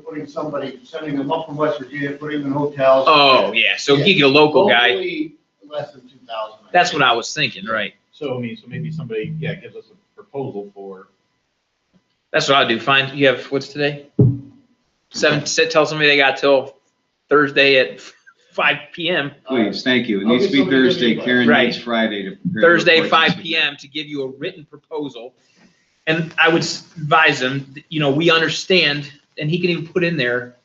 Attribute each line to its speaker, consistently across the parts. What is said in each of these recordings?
Speaker 1: putting somebody, sending them up from West Virginia, putting them in hotels.
Speaker 2: Oh, yeah, so he get a local guy,
Speaker 1: Locally, Less than two thousand.
Speaker 2: that's what I was thinking, right?
Speaker 3: So, I mean, so maybe somebody, yeah, gives us a proposal for,
Speaker 2: That's what I'll do, find, you have, what's today? Seven, sit, tell somebody they got till Thursday at five PM,
Speaker 4: Please, thank you. It
Speaker 1: I'll
Speaker 4: needs
Speaker 1: get
Speaker 4: to be
Speaker 1: somebody to give
Speaker 4: Thursday.
Speaker 1: you a-
Speaker 4: Karen
Speaker 2: Right.
Speaker 4: needs Friday to. prepare the
Speaker 2: Thursday,
Speaker 4: reports.
Speaker 2: five PM, to give you a written proposal. And I would s- advise him, that, you know, we understand, and he can even put in there,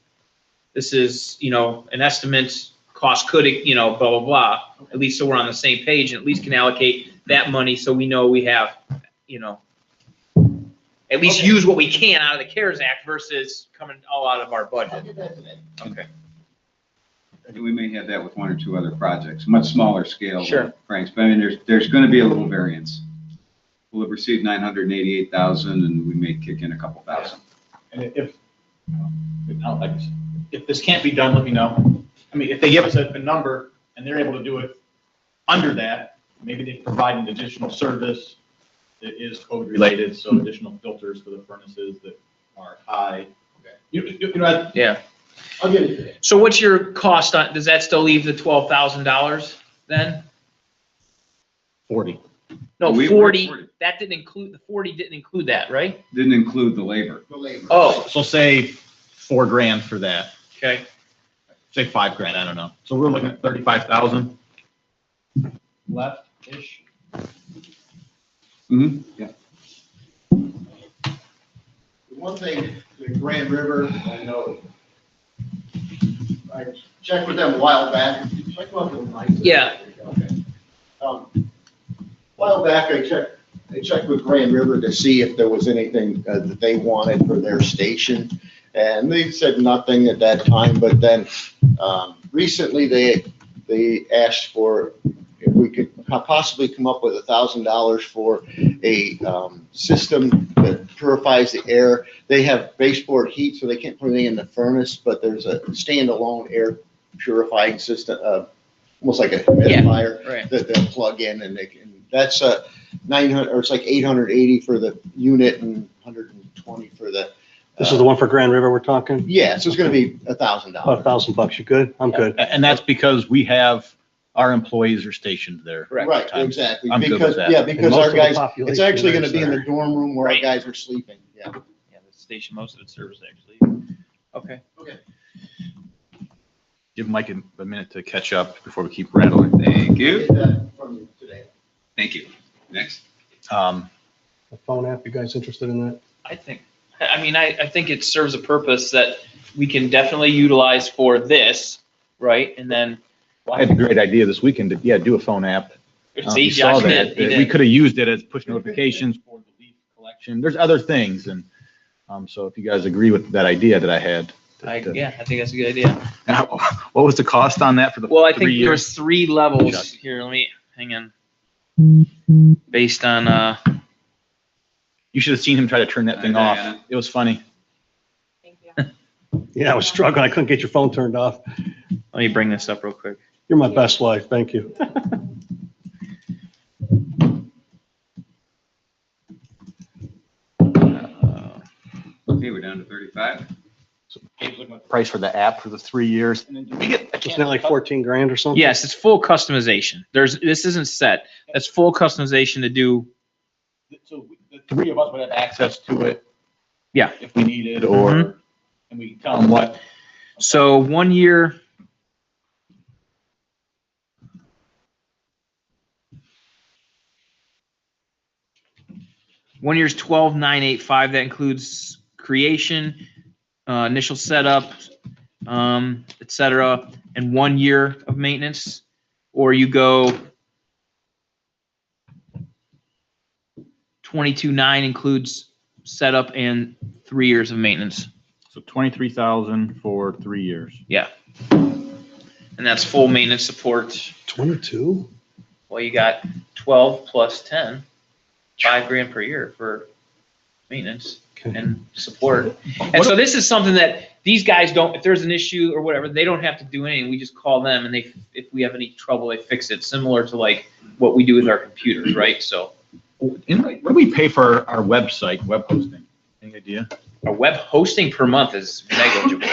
Speaker 2: this is, you know, an estimate, cost could, e, you know, blah, blah, blah. At least so we're on the same page, and at least can allocate that money so we know we have, you know, at least
Speaker 1: Okay.
Speaker 2: use what we can out of the CARES Act versus coming all out of our
Speaker 1: I'll
Speaker 2: budget.
Speaker 1: get that today.
Speaker 2: Okay.
Speaker 4: And we may have that with one or two other projects, much smaller scale.
Speaker 2: Sure.
Speaker 4: Frank's, but I mean, there's, there's going to be a little variance. We'll have received nine hundred and eighty-eight thousand and we may kick in a couple thousand.
Speaker 3: and if, if, I don't like this. if this can't be done, let me know. I mean, if they give us a, a number and they're able to do it under that, maybe they provide an additional service that is code related, so additional filters for the furnaces that are high.
Speaker 1: Okay.
Speaker 3: You, you you know, I-
Speaker 2: Yeah.
Speaker 1: I'll get it today.
Speaker 2: So what's your cost on, does that still leave the twelve thousand dollars then?
Speaker 3: Forty.
Speaker 2: No,
Speaker 4: We- we're at
Speaker 2: forty,
Speaker 4: 40.
Speaker 2: that didn't include, the forty didn't include that, right?
Speaker 4: Didn't include the labor.
Speaker 1: The labor.
Speaker 2: Oh,
Speaker 3: So say four grand for that,
Speaker 2: okay.
Speaker 3: say five grand, I don't know. So we're looking at thirty-five thousand. Left-ish.
Speaker 4: hmm
Speaker 2: Mm-hmm.
Speaker 4: yeah.
Speaker 1: The One thing, the Grand River, I know. I checked with them a while back, check with them, Mike.
Speaker 2: Yeah.
Speaker 1: Okay. Um, While back, I checked, I checked with Grand River to see if there was anything uh, that they wanted for their station. And they said nothing at that time, but then, um, recently they, they asked for, if we could possibly come up with a thousand dollars for a, um, system that purifies the air they have baseboard heat, so they can't put anything in the furnace, but there's a standalone air purifying system, uh, almost like a humidifier
Speaker 2: Right.
Speaker 1: that they'll plug in and they can, that's a nine hundred, or it's like eight hundred eighty for the unit and hundred and twenty for the. uh,
Speaker 5: This is the one for Grand River we're talking?
Speaker 1: Yeah, so it's gonna be a thousand
Speaker 5: About a
Speaker 1: dollars.
Speaker 5: thousand bucks. You good? I'm good.
Speaker 6: A- And that's because we have, our employees are stationed there.
Speaker 2: Correct.
Speaker 1: Right,
Speaker 6: Times.
Speaker 1: exactly,
Speaker 6: I'm good with
Speaker 1: because,
Speaker 6: that.
Speaker 1: yeah,
Speaker 5: And
Speaker 1: because
Speaker 5: most
Speaker 1: our
Speaker 5: of the
Speaker 1: guys, it's
Speaker 5: population
Speaker 1: actually gonna
Speaker 5: lives
Speaker 1: be in the
Speaker 5: there.
Speaker 1: dorm room where our
Speaker 2: Right.
Speaker 1: guys are sleeping, yeah.
Speaker 2: Yeah, the station, most of its service actually. Okay.
Speaker 6: Give Mike a a minute to catch up before we keep rattling.
Speaker 4: Thank you.
Speaker 1: Get that from you today.
Speaker 4: Thank you. Next.
Speaker 6: Um,
Speaker 5: The phone app, you guys interested in that?
Speaker 2: I think, I- I mean, I, I think it serves a purpose that we can definitely utilize for this, right? And then,
Speaker 6: I had a great idea this weekend to, yeah, do a phone app. Uh,
Speaker 2: see,
Speaker 6: you saw
Speaker 2: Josh
Speaker 6: that,
Speaker 2: did, he
Speaker 6: that We
Speaker 2: did.
Speaker 6: could have used it as push notifications for the leaf collection. There's other things and, um, so if you guys agree with that idea that I had.
Speaker 2: I,
Speaker 6: that, uh,
Speaker 2: yeah, I think that's a good idea.
Speaker 6: and how- What was the cost on that for the
Speaker 2: Well, I
Speaker 6: three
Speaker 2: think
Speaker 6: years?
Speaker 2: there's three levels here. Let me, hang on. Based on, uh,
Speaker 6: You should have seen him try to turn that thing
Speaker 4: Hi,
Speaker 6: off.
Speaker 4: Diana.
Speaker 6: It was funny.
Speaker 7: Thank you.
Speaker 5: Yeah, I was struggling. I couldn't get your phone turned off.
Speaker 2: let me bring this up real quick.
Speaker 5: You're my best wife. Thank you.
Speaker 2: Uh,
Speaker 4: Okay, we're down to thirty-five.
Speaker 6: Price for the app for the three years.
Speaker 5: Isn't that like fourteen grand or something?
Speaker 2: Yes, it's full customization. There's, this isn't set. That's full customization to do.
Speaker 3: So the three of us would have access to it.
Speaker 2: Yeah. Mm-hmm.
Speaker 3: If we needed or, and we tell them what.
Speaker 2: So one year. One year's twelve nine eight five. That includes creation, uh, initial setup, um, et cetera, and one year of maintenance. Or you go twenty-two nine includes setup and three years of maintenance.
Speaker 6: So twenty-three thousand for three years.
Speaker 2: And that's full maintenance support.
Speaker 5: Twenty-two?
Speaker 2: Well, you got twelve plus ten, five grand per year for maintenance
Speaker 5: Okay.
Speaker 2: and support. And so this is something that these guys don't, if there's an issue or whatever, they don't have to do anything. We just call them and they, if we have any trouble, they fix it, similar to like what we do with our computers, right? So
Speaker 6: In- What do we pay for our website, web hosting? Any idea?
Speaker 2: a web hosting per month is negligible.